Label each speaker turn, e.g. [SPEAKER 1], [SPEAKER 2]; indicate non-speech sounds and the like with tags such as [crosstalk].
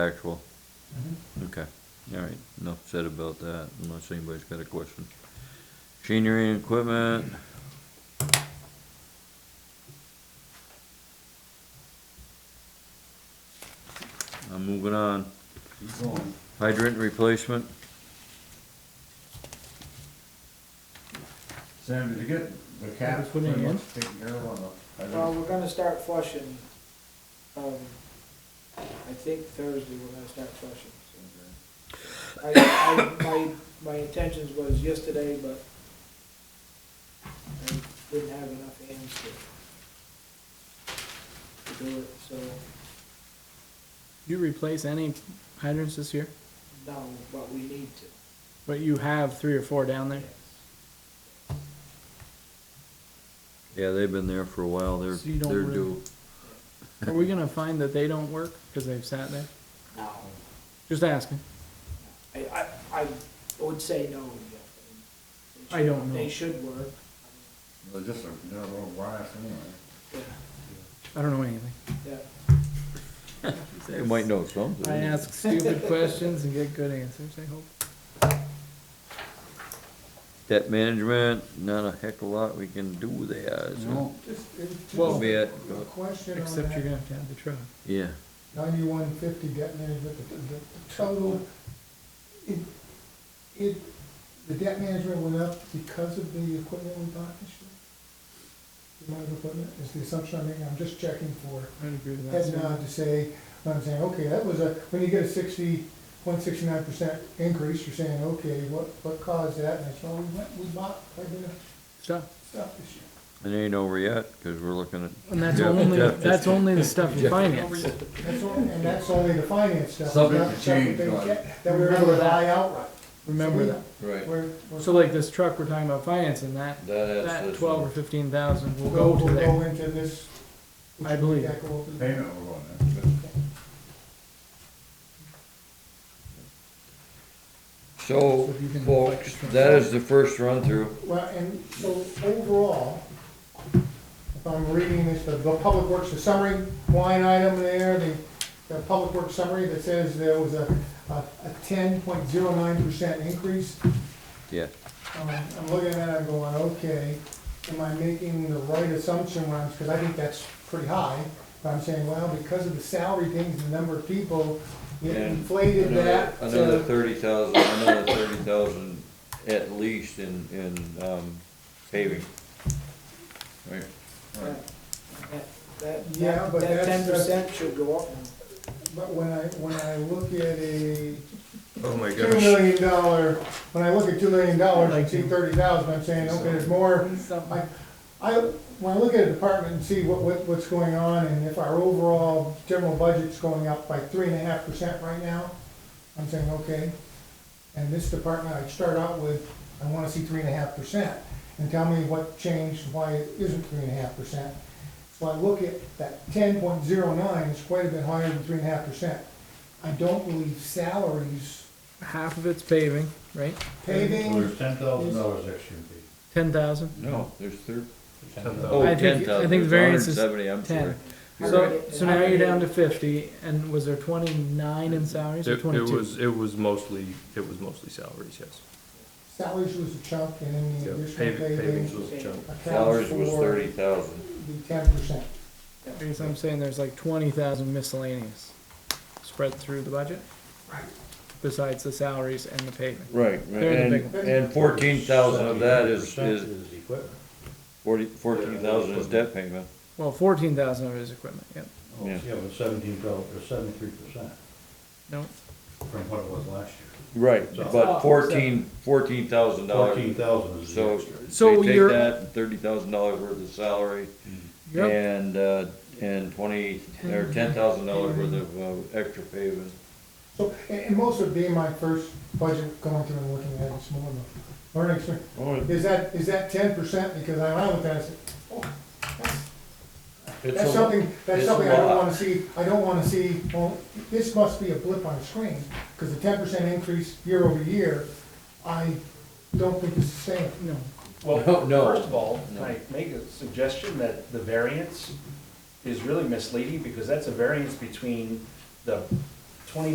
[SPEAKER 1] Actual,
[SPEAKER 2] Mm-hmm.
[SPEAKER 1] okay, all right, enough said about that, unless anybody's got a question. Machinery and equipment. I'm moving on,
[SPEAKER 3] Keep going.
[SPEAKER 1] hydrant replacement,
[SPEAKER 3] Sam, did you get the cap
[SPEAKER 2] Put it
[SPEAKER 3] pretty
[SPEAKER 2] in.
[SPEAKER 3] much taken care of on the, I
[SPEAKER 4] Well,
[SPEAKER 3] don't,
[SPEAKER 4] we're gonna start flushing, um, I think Thursday we're gonna start flushing. so. uh, I, I, my, my intentions was yesterday, but I didn't have enough hands to, to do it, so,
[SPEAKER 2] You replace any hydrants this year,
[SPEAKER 4] no, but we need to.
[SPEAKER 2] but you have three or four down there.
[SPEAKER 1] yeah, they've been there for a while, they're,
[SPEAKER 2] So you don't
[SPEAKER 1] they're
[SPEAKER 2] really-
[SPEAKER 1] due.
[SPEAKER 2] Are we gonna find that they don't work because they've sat there?
[SPEAKER 4] No.
[SPEAKER 2] Just asking.
[SPEAKER 4] I, I, I would say no, yeah. They
[SPEAKER 2] I don't
[SPEAKER 4] should-
[SPEAKER 2] know.
[SPEAKER 4] They should work,
[SPEAKER 3] they're just a, they're a little brass anyway.
[SPEAKER 4] yeah,
[SPEAKER 2] I don't know anything.
[SPEAKER 4] yeah.
[SPEAKER 1] They might know something.
[SPEAKER 2] I ask stupid [laughs] questions and get good answers, I hope.
[SPEAKER 1] Debt management, not a heck of a lot we can do there, so,
[SPEAKER 5] Just, it-
[SPEAKER 1] that'll
[SPEAKER 2] Well-
[SPEAKER 5] just
[SPEAKER 1] be it,
[SPEAKER 5] a question on
[SPEAKER 2] Except you're
[SPEAKER 5] that,
[SPEAKER 2] gonna have to have the truck.
[SPEAKER 1] yeah.
[SPEAKER 5] ninety-one fifty debt management, the, the the total, it, it, the debt management went up because of the equipment we bought this year? The amount of equipment, is the assumption I'm making, I'm just checking for
[SPEAKER 2] I'd agree with that.
[SPEAKER 5] head
[SPEAKER 2] too.
[SPEAKER 5] nod to say, I'm saying, okay, that was a, when you get a sixty, one sixty-nine percent increase, you're saying, okay, what, what caused that? And it's, well, we went, we bought, quite a bit of
[SPEAKER 2] Stuff.
[SPEAKER 5] stuff this year.
[SPEAKER 1] It ain't over yet, cause we're looking at
[SPEAKER 2] And that's
[SPEAKER 1] Yeah,
[SPEAKER 2] only,
[SPEAKER 1] Jeff just-
[SPEAKER 2] that's only the stuff you finance.
[SPEAKER 5] That's only, and that's only the finance stuff.
[SPEAKER 3] Subject to
[SPEAKER 5] not the stuff
[SPEAKER 3] change,
[SPEAKER 5] that they
[SPEAKER 3] right.
[SPEAKER 5] get- That we were able to buy outright.
[SPEAKER 2] Remember that.
[SPEAKER 5] Right. We're, we're.
[SPEAKER 2] So like this truck we're talking about financing, that, that twelve or fifteen thousand will go to
[SPEAKER 5] we'll
[SPEAKER 2] there.
[SPEAKER 5] Go into this.
[SPEAKER 2] I believe.
[SPEAKER 5] Yeah, go over there.
[SPEAKER 3] Payment will go in there.
[SPEAKER 1] So,
[SPEAKER 2] So if you can-
[SPEAKER 1] folks, that is the first run-through.
[SPEAKER 5] Well, and so overall, if I'm reading this, the, the public works, the summary line item there, the, the public works summary that says there was a, a, a ten point zero nine percent increase.
[SPEAKER 1] Yeah.
[SPEAKER 5] Um, I'm looking at it, I'm going, okay, am I making the right assumption when I'm, because I think that's pretty high. But I'm saying, well, because of the salary things, the number of people, it
[SPEAKER 1] And
[SPEAKER 5] inflated
[SPEAKER 1] another-
[SPEAKER 5] that. to-
[SPEAKER 1] Another thirty thousand, another thirty thousand at least in, in, um, paving. Right,
[SPEAKER 4] That, that,
[SPEAKER 5] Yeah,
[SPEAKER 4] that,
[SPEAKER 5] but
[SPEAKER 4] that ten
[SPEAKER 5] that's-
[SPEAKER 4] percent should go up now.
[SPEAKER 5] But when I, when I look at a
[SPEAKER 1] oh my
[SPEAKER 5] two million dollar, when I look at two million dollars, I
[SPEAKER 2] Like
[SPEAKER 5] see
[SPEAKER 2] you.
[SPEAKER 5] thirty thousand, I'm saying, okay, there's more.
[SPEAKER 2] Something.
[SPEAKER 5] I, I, when I look at a department and see what, what, what's going on, and if our overall general budget's going up by three and a half percent right now, I'm saying, okay, and this department, I'd start out with, I wanna see three and a half percent, and tell me what changed, why it isn't three and a half percent. So I look at that ten point zero nine, is quite a bit higher than three and a half percent. I don't believe salaries,
[SPEAKER 2] Half of it's paving, right?
[SPEAKER 3] Well,
[SPEAKER 5] paving,
[SPEAKER 3] there's ten thousand dollars extra in
[SPEAKER 2] Ten thousand?
[SPEAKER 1] No, there's thir-
[SPEAKER 3] Ten
[SPEAKER 6] uh,
[SPEAKER 3] thousand.
[SPEAKER 1] oh,
[SPEAKER 2] I think-
[SPEAKER 1] ten
[SPEAKER 2] I
[SPEAKER 1] thousand,
[SPEAKER 2] think
[SPEAKER 1] there's
[SPEAKER 2] variance is
[SPEAKER 1] 170, I'm sorry.
[SPEAKER 2] 10. So, so now you're down to fifty, and was there twenty-nine in salaries or
[SPEAKER 6] It, it
[SPEAKER 2] Oh, twenty-two?
[SPEAKER 6] was, it was mostly, it was mostly salaries, yes.
[SPEAKER 5] salaries was a chunk, and then the
[SPEAKER 6] Yeah,
[SPEAKER 5] additional
[SPEAKER 6] paving,
[SPEAKER 5] paving.
[SPEAKER 6] pavings was a chunk.
[SPEAKER 5] accounts
[SPEAKER 1] Salaries was
[SPEAKER 5] for
[SPEAKER 1] thirty thousand.
[SPEAKER 5] The ten percent.
[SPEAKER 2] I guess I'm saying there's like twenty thousand miscellaneous spread through the budget? Besides the salaries and the paving.
[SPEAKER 1] Right,
[SPEAKER 2] They're the big
[SPEAKER 1] and, and fourteen thousand of that is, is forty, fourteen thousand is debt payment.
[SPEAKER 2] Well, fourteen thousand of it is equipment, yep.
[SPEAKER 1] Yeah.
[SPEAKER 7] Oh, Yeah, but seventeen dollars, or seventy-three percent
[SPEAKER 2] No,
[SPEAKER 7] from what it was last year.
[SPEAKER 1] Right,
[SPEAKER 2] Oh,
[SPEAKER 1] but fourteen, fourteen thousand
[SPEAKER 7] Fourteen
[SPEAKER 1] dollars,
[SPEAKER 7] thousand is the
[SPEAKER 1] so,
[SPEAKER 7] extra.
[SPEAKER 2] So
[SPEAKER 1] they take
[SPEAKER 2] you're-
[SPEAKER 1] that, thirty thousand dollars worth of salary,
[SPEAKER 2] yep,
[SPEAKER 1] And, uh, and twenty, or ten thousand dollars worth of, uh, extra paving.
[SPEAKER 5] So, and, and most of being my first budget going through and looking at it this morning, learning experience, is that, is that ten percent? Because I went with that, I said, oh, that's, that's something, that's
[SPEAKER 1] it's
[SPEAKER 5] something
[SPEAKER 1] a
[SPEAKER 5] I don't
[SPEAKER 1] lot.
[SPEAKER 5] wanna see, I don't wanna see, well, this must be a blip on a screen, cause the ten percent increase year over year, I don't think is sustainable.
[SPEAKER 2] no,
[SPEAKER 8] Well,
[SPEAKER 1] No.
[SPEAKER 8] first of all,
[SPEAKER 1] No.
[SPEAKER 8] can I make a suggestion that the variance is really misleading because that's a variance between the